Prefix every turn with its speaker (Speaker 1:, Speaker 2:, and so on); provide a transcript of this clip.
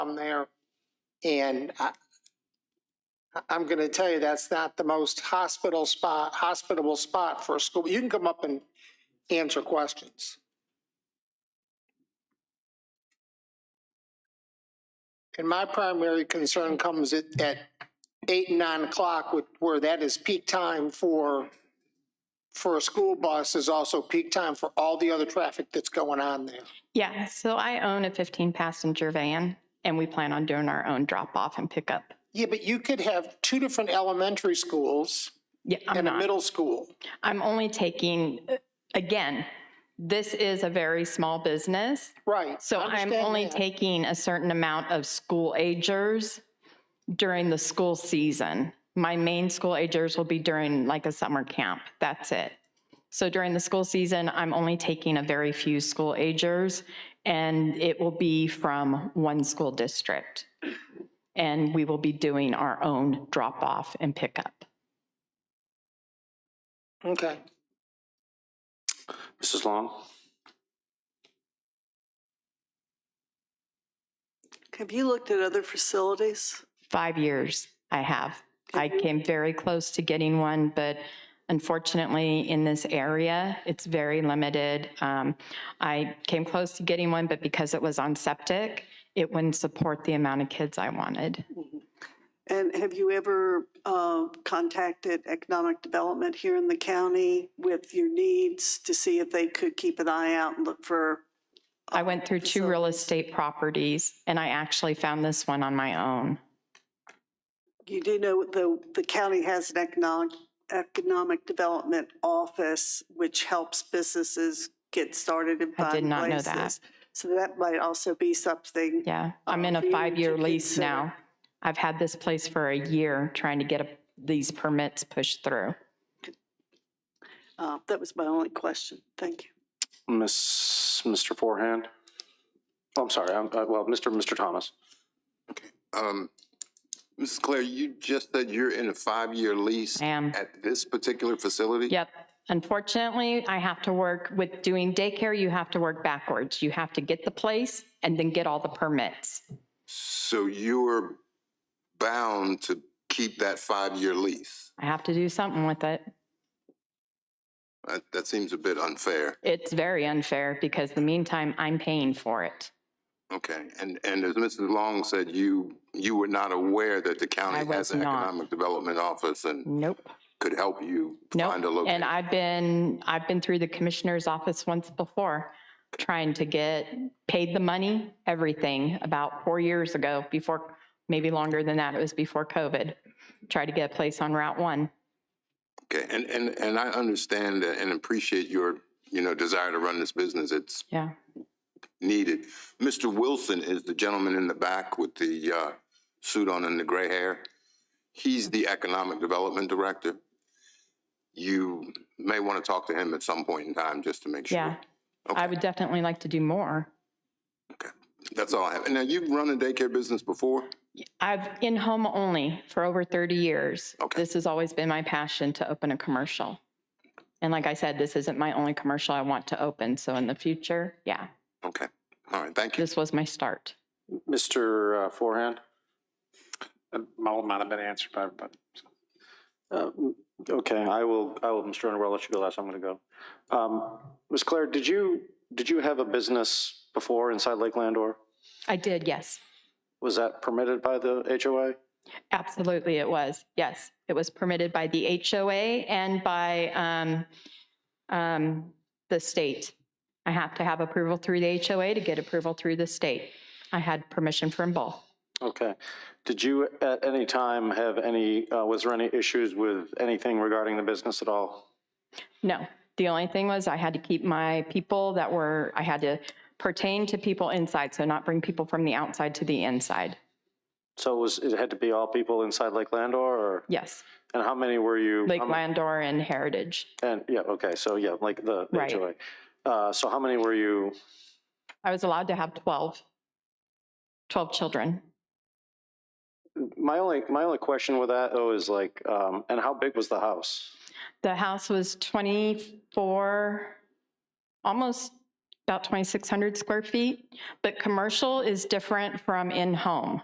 Speaker 1: I'm there. And I, I- I'm gonna tell you, that's not the most hospital spot, hospitable spot for a school. You can come up and answer questions. And my primary concern comes at, at eight, nine o'clock, with- where that is peak time for, for a school bus is also peak time for all the other traffic that's going on there.
Speaker 2: Yeah, so I own a 15 passenger van and we plan on doing our own drop off and pickup.
Speaker 1: Yeah, but you could have two different elementary schools
Speaker 2: Yeah, I'm
Speaker 1: and a
Speaker 2: not.
Speaker 1: middle school.
Speaker 2: I'm only taking, uh, again, this is a very small business.
Speaker 1: Right.
Speaker 2: So
Speaker 1: I
Speaker 2: I'm
Speaker 1: understand
Speaker 2: only
Speaker 1: that.
Speaker 2: taking a certain amount of school agers during the school season. My main school agers will be during like a summer camp. That's it. So during the school season, I'm only taking a very few school agers and it will be from one school district. And we will be doing our own drop off and pickup.
Speaker 1: Okay.
Speaker 3: Mrs. Long?
Speaker 4: Have you looked at other facilities?
Speaker 2: Five years I have. I
Speaker 4: Have you-
Speaker 2: came very close to getting one, but unfortunately, in this area, it's very limited. Um, I came close to getting one, but because it was on septic, it wouldn't support the amount of kids I wanted.
Speaker 4: And have you ever uh, contacted economic development here in the county with your needs to see if they could keep an eye out and look for?
Speaker 2: I went through two real estate properties, and I actually found this one on my own.
Speaker 4: You do know the, the county has an economic, economic development office, which helps businesses get started and
Speaker 2: I did
Speaker 4: find
Speaker 2: not know that.
Speaker 4: places. So that might also be something.
Speaker 2: Yeah, I'm
Speaker 4: Uh,
Speaker 2: in
Speaker 4: for
Speaker 2: a
Speaker 4: you
Speaker 2: five-year
Speaker 4: to
Speaker 2: lease
Speaker 4: consider.
Speaker 2: now. I've had this place for a year trying to get a- these permits pushed through.
Speaker 4: Uh, That was my only question. Thank you.
Speaker 3: Miss, Mr. Forehand? Oh, I'm sorry, I'm, uh, well, Mr. Mr. Thomas.
Speaker 5: Um, Mrs. Claire, you just said you're in a five-year lease
Speaker 2: I am.
Speaker 5: at this particular facility?
Speaker 2: Yep. Unfortunately, I have to work with doing daycare, you have to work backwards. You have to get the place and then get all the permits.
Speaker 5: So you're bound to keep that five-year lease?
Speaker 2: I have to do something with it.
Speaker 5: That, that seems a bit unfair.
Speaker 2: It's very unfair because the meantime, I'm paying for it.
Speaker 5: Okay, and, and as Mrs. Long said, you, you were not aware that the
Speaker 2: I
Speaker 5: county
Speaker 2: was
Speaker 5: has an
Speaker 2: not.
Speaker 5: economic development office and
Speaker 2: Nope,
Speaker 5: could help you find a
Speaker 2: nope.
Speaker 5: location?
Speaker 2: And I've been, I've been through the commissioner's office once before, trying to get paid the money, everything, about four years ago, before, maybe longer than that, it was before COVID. Tried to get a place on Route 1.
Speaker 5: Okay, and, and, and I understand that and appreciate your, you know, desire to run this business. It's
Speaker 2: Yeah.
Speaker 5: needed. Mr. Wilson is the gentleman in the back with the uh, suit on and the gray hair. He's the Economic Development Director. You may want to talk to him at some point in time just to make sure.
Speaker 2: Yeah. I
Speaker 5: Okay.
Speaker 2: would definitely like to do more.
Speaker 5: That's all I have. And Now, you've run a daycare business before?
Speaker 2: I've in home only for over 30 years.
Speaker 5: Okay.
Speaker 2: This has always been my passion to open a commercial. And like I said, this isn't my only commercial I want to open. So in the future, yeah,
Speaker 5: Okay. All right, thank you.
Speaker 2: this was my start.
Speaker 3: Mr. uh, Forehand?
Speaker 6: All Uh, might have been answered by everybody.
Speaker 3: Uh, mm, Okay, I will, I will, Mr. Underwood, I'll let you go last, I'm gonna go. Um, Ms. Claire, did you, did you have a business before inside Lake Landor?
Speaker 2: I did, yes.
Speaker 3: Was that permitted by the HOA?
Speaker 2: Absolutely, it was. Yes. It was permitted by the HOA and by um, um, the state. I have to have approval through the HOA to get approval through the state. I had permission from both.
Speaker 3: Okay. Did you at any time have any, uh, was there any issues with anything regarding the business at all?
Speaker 2: No. The only thing was I had to keep my people that were, I had to pertain to people inside, so not bring people from the outside to the inside.
Speaker 3: So it was, it had to be all people inside Lake Landor or,
Speaker 2: Yes,
Speaker 3: and how many were you?
Speaker 2: Lake
Speaker 3: how ma-
Speaker 2: Landor and Heritage.
Speaker 3: And, yeah, okay, so yeah, like the the
Speaker 2: Right.
Speaker 3: HOA. Uh, so how many were you,
Speaker 2: I was allowed to have 12, 12 children.
Speaker 3: my only, my only question with that though is like, um, and how big was the house?
Speaker 2: The house was 24, almost about 2,600 square feet, but commercial is different from in-home.